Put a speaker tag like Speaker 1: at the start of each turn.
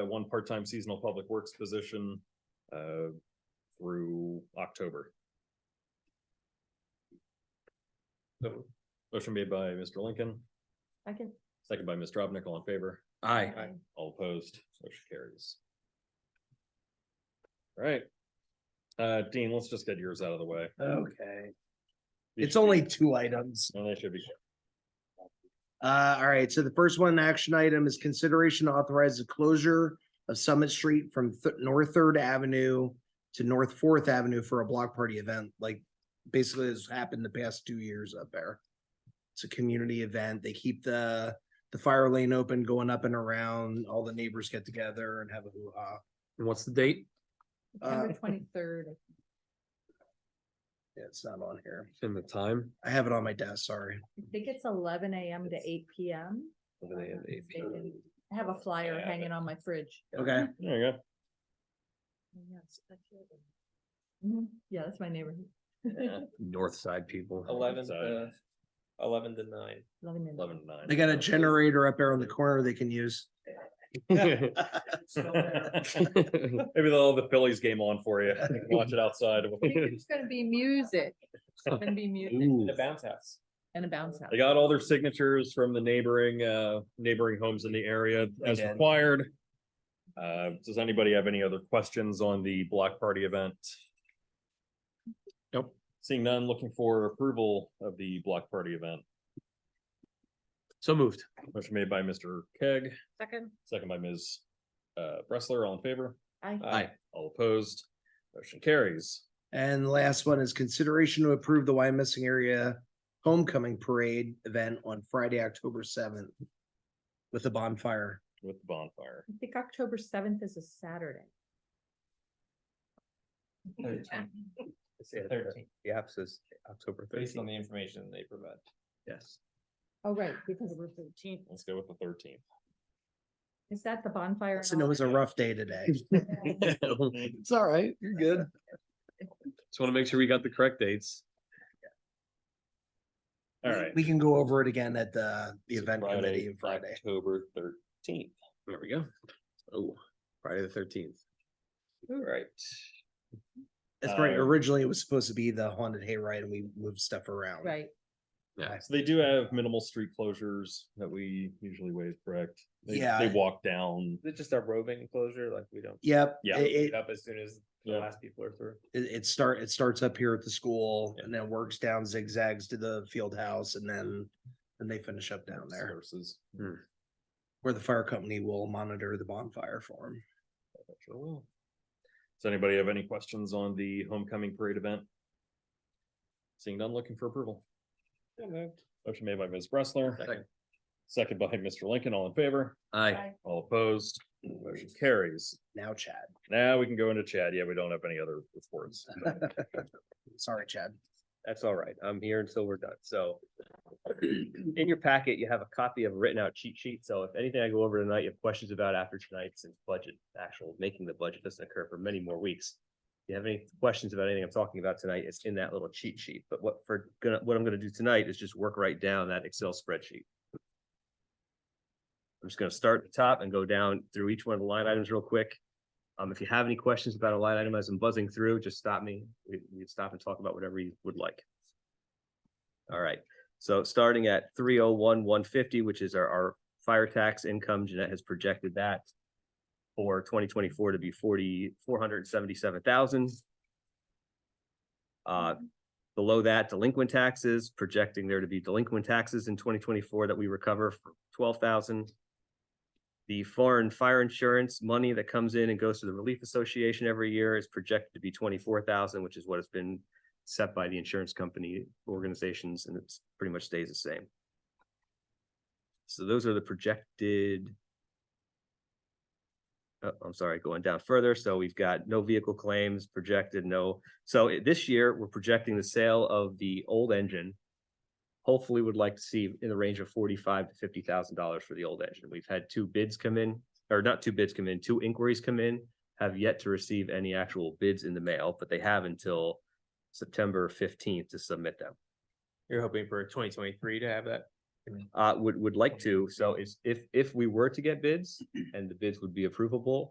Speaker 1: uh, one part-time seasonal public works position, uh, through October.
Speaker 2: So,
Speaker 1: Motion made by Mr. Lincoln,
Speaker 3: I can.
Speaker 1: second by Ms. Dropnik, all in favor,
Speaker 4: Aye.
Speaker 3: Uh,
Speaker 1: all opposed, motion carries. All right. Uh, Dean, let's just get yours out of the way.
Speaker 2: Okay,
Speaker 1: These
Speaker 2: it's
Speaker 1: should be-
Speaker 2: only two items.
Speaker 1: No, they should be,
Speaker 2: Uh, all right, so the first one, action item is consideration to authorize the closure of Summit Street from Th- North Third Avenue to North Fourth Avenue for a block party event, like basically has happened the past two years up there. It's a community event. They keep the, the fire lane open, going up and around. All the neighbors get together and have a hoo-ha.
Speaker 4: And what's the date?
Speaker 2: Uh,
Speaker 3: September twenty-third.
Speaker 2: Yeah, It's not on here.
Speaker 4: And the time?
Speaker 2: I have it on my desk, sorry.
Speaker 3: I think it's Oh, eleven AM to eight PM. if I'm not mistaken. I have a flyer
Speaker 1: Yeah,
Speaker 3: hanging on my fridge.
Speaker 2: Okay.
Speaker 1: there you go.
Speaker 3: Yes, that's it. Mhm. Yeah, that's my neighborhood.
Speaker 4: North side people.
Speaker 5: Eleven
Speaker 1: So-
Speaker 5: to, eleven to nine.
Speaker 3: Eleven and-
Speaker 1: Eleven to nine.
Speaker 2: They got a generator up there on the corner they can use.
Speaker 1: Maybe they'll have the Phillies game on for you. Watch it outside.
Speaker 3: I think It's gonna be music. It's gonna be music
Speaker 4: Ooh.
Speaker 5: The bounce house.
Speaker 3: and a bounce house.
Speaker 1: They got all their signatures from the neighboring, uh, neighboring homes in the area as
Speaker 2: did.
Speaker 1: required. Uh, does anybody have any other questions on the block party event?
Speaker 4: Nope.
Speaker 1: Seeing none, looking for approval of the block party event.
Speaker 4: So moved.
Speaker 1: Motion made by Mr. Keg,
Speaker 3: Second.
Speaker 1: second by Ms. Uh, Bressler, all in favor,
Speaker 3: I,
Speaker 5: Uh,
Speaker 4: Aye.
Speaker 1: all opposed, motion carries.
Speaker 2: And the last one is consideration to approve the Why Missing Area Homecoming Parade event on Friday, October seventh with a bonfire.
Speaker 1: with the bonfire.
Speaker 3: I think October seventh is a Saturday.
Speaker 5: Thirteen. Thirteen,
Speaker 4: The app says October
Speaker 5: based on the information they provide.
Speaker 4: Yes.
Speaker 3: Oh, right, because we're thirteenth.
Speaker 1: Let's go with the thirteenth.
Speaker 3: Is that the bonfire? and
Speaker 2: Listen, it
Speaker 3: all
Speaker 2: was a
Speaker 3: that?
Speaker 2: rough day today.
Speaker 4: It's all right. You're good. Just want to make sure we got the correct dates.
Speaker 1: All right.
Speaker 2: We can go over it again at the, the event
Speaker 1: Friday,
Speaker 2: committee Friday.
Speaker 1: October thirteenth.
Speaker 4: There we go. Oh, Friday the thirteenth.
Speaker 5: All right.
Speaker 2: That's right.
Speaker 1: uh,
Speaker 2: Originally, it was supposed to be the haunted hayride and we moved stuff around.
Speaker 3: Right.
Speaker 1: So they do have minimal street closures that we usually waive, correct? They-
Speaker 2: Yeah.
Speaker 1: They walk down.
Speaker 5: Is it just a roving closure? Like we don't
Speaker 2: Yep.
Speaker 1: Yeah.
Speaker 2: It,
Speaker 5: pick
Speaker 2: it,
Speaker 5: it up as soon as the
Speaker 1: Yeah.
Speaker 5: last people are through?
Speaker 2: it it start, it starts up here at the school
Speaker 1: Yeah.
Speaker 2: and then works down zigzags to the field house and then,
Speaker 1: Mm-hmm.
Speaker 2: and they finish up down there.
Speaker 1: Services.
Speaker 2: where the fire company will monitor the bonfire for him.
Speaker 1: Sure will. Does anybody have any questions on the homecoming parade event? Seeing none, looking for approval. Motion made by Ms. Bressler.
Speaker 4: Second.
Speaker 1: Second by Mr. Lincoln, all in favor,
Speaker 4: Aye.
Speaker 3: I-
Speaker 1: all opposed, motion carries.
Speaker 2: Now, Chad.
Speaker 1: Now we can go into Chad. Yeah, we don't have any other reports.
Speaker 2: Sorry, Chad.
Speaker 6: That's all right. I'm here until we're done. So in your packet, you have a copy of a written out cheat sheet. So if anything I go over tonight, you have questions about after tonight, since budget, actual making the budget doesn't occur for many more weeks. If you have any questions about anything I'm talking about tonight, it's in that little cheat sheet. But what for gonna, what I'm gonna do tonight is just work right down that Excel spreadsheet. I'm just gonna start at the top and go down through each one of the line items real quick. Um, if you have any questions about a line item as I'm buzzing through, just stop me. We, we can stop and talk about whatever you would like. All right, so starting at three oh one, one fifty, which is our, our fire tax income, Jeanette has projected that for twenty twenty-four to be forty, four hundred and seventy-seven thousand. Uh, below that, delinquent taxes, projecting there to be delinquent taxes in twenty twenty-four that we recover for twelve thousand. The foreign fire insurance money that comes in and goes to the Relief Association every year is projected to be twenty-four thousand, which is what has been set by the insurance company organizations, and it's pretty much stays the same. So those are the projected. Oh, I'm sorry, going down further. So we've got no vehicle claims projected, no. So i- this year, we're projecting the sale of the old engine. Hopefully, would like to see in the range of forty-five to fifty thousand dollars for the old engine. We've had two bids come in, or not two bids come in, two inquiries come in. Have yet to receive any actual bids in the mail, but they have until September fifteenth to submit them.
Speaker 5: You're hoping for twenty twenty-three to have that
Speaker 6: uh, would, would like to. So is, if, if we were to get bids and the bids would be approvable,